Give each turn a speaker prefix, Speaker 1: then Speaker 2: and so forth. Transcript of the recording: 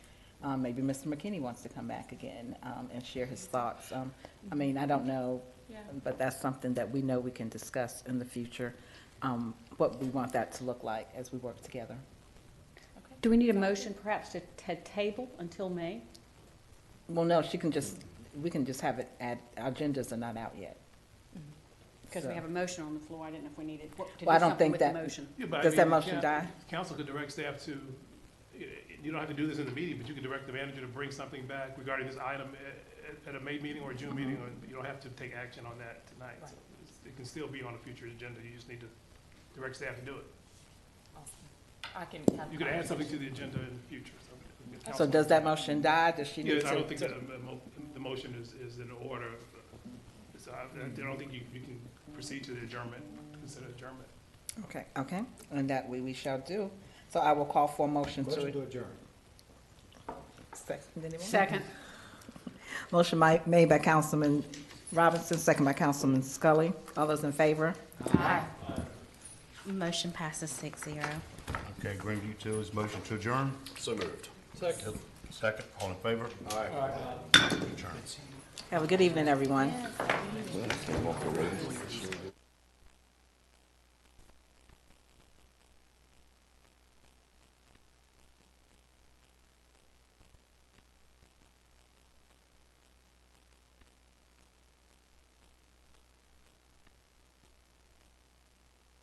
Speaker 1: Um, Maybe Mr. McKinney wants to come back again um, and share his thoughts. Um, I mean, I don't know, but that's something that we know we can discuss in the future, um, what we want that to look like as we work together.
Speaker 2: Do we need a motion perhaps to ta- table until May?
Speaker 1: Well, no, she can just, we can just have it, add, our agendas are not out yet.
Speaker 2: Because Mm-hmm. we
Speaker 1: So-
Speaker 2: have a motion on the floor, I didn't know if we needed, what- to
Speaker 1: Well, I
Speaker 2: do
Speaker 1: don't
Speaker 2: something
Speaker 1: think
Speaker 2: with the
Speaker 1: that-
Speaker 2: motion.
Speaker 3: Yeah, but I
Speaker 1: Does that
Speaker 3: mean,
Speaker 1: motion
Speaker 3: coun-
Speaker 1: die?
Speaker 3: Council could direct staff to, eh, you don't have to do this in the meeting, but you could direct the manager to bring something back regarding this item eh, at at a May meeting or a June meeting, or you don't have to take action on that tonight.
Speaker 4: Mm-hmm. Right.
Speaker 3: So it's- It can still be on a future agenda, you just need to direct staff to do it.
Speaker 4: I can have.
Speaker 3: You could add something to the agenda in the future, so. if
Speaker 1: So
Speaker 3: the council-
Speaker 1: does that motion die? Does she need
Speaker 3: Yes,
Speaker 1: to?
Speaker 3: I don't think that a mo- the motion is, is in order. So I I don't think you, you can proceed to the adjournment, consider adjournment.
Speaker 1: Okay, okay, and that we, we shall do. So I will call for a motion
Speaker 5: Motion to
Speaker 1: to.
Speaker 5: adjourn.
Speaker 1: Second, anyone?
Speaker 2: Second.
Speaker 1: Motion mi- made by Councilman Robinson, second by Councilman Scully. All those in favor?
Speaker 6: Motion passes six zero.
Speaker 7: Okay, Greenview Utilities, motion to adjourn? So moved. Second. Second, all in favor? Aye. Adjourn.
Speaker 1: Have a good evening, everyone.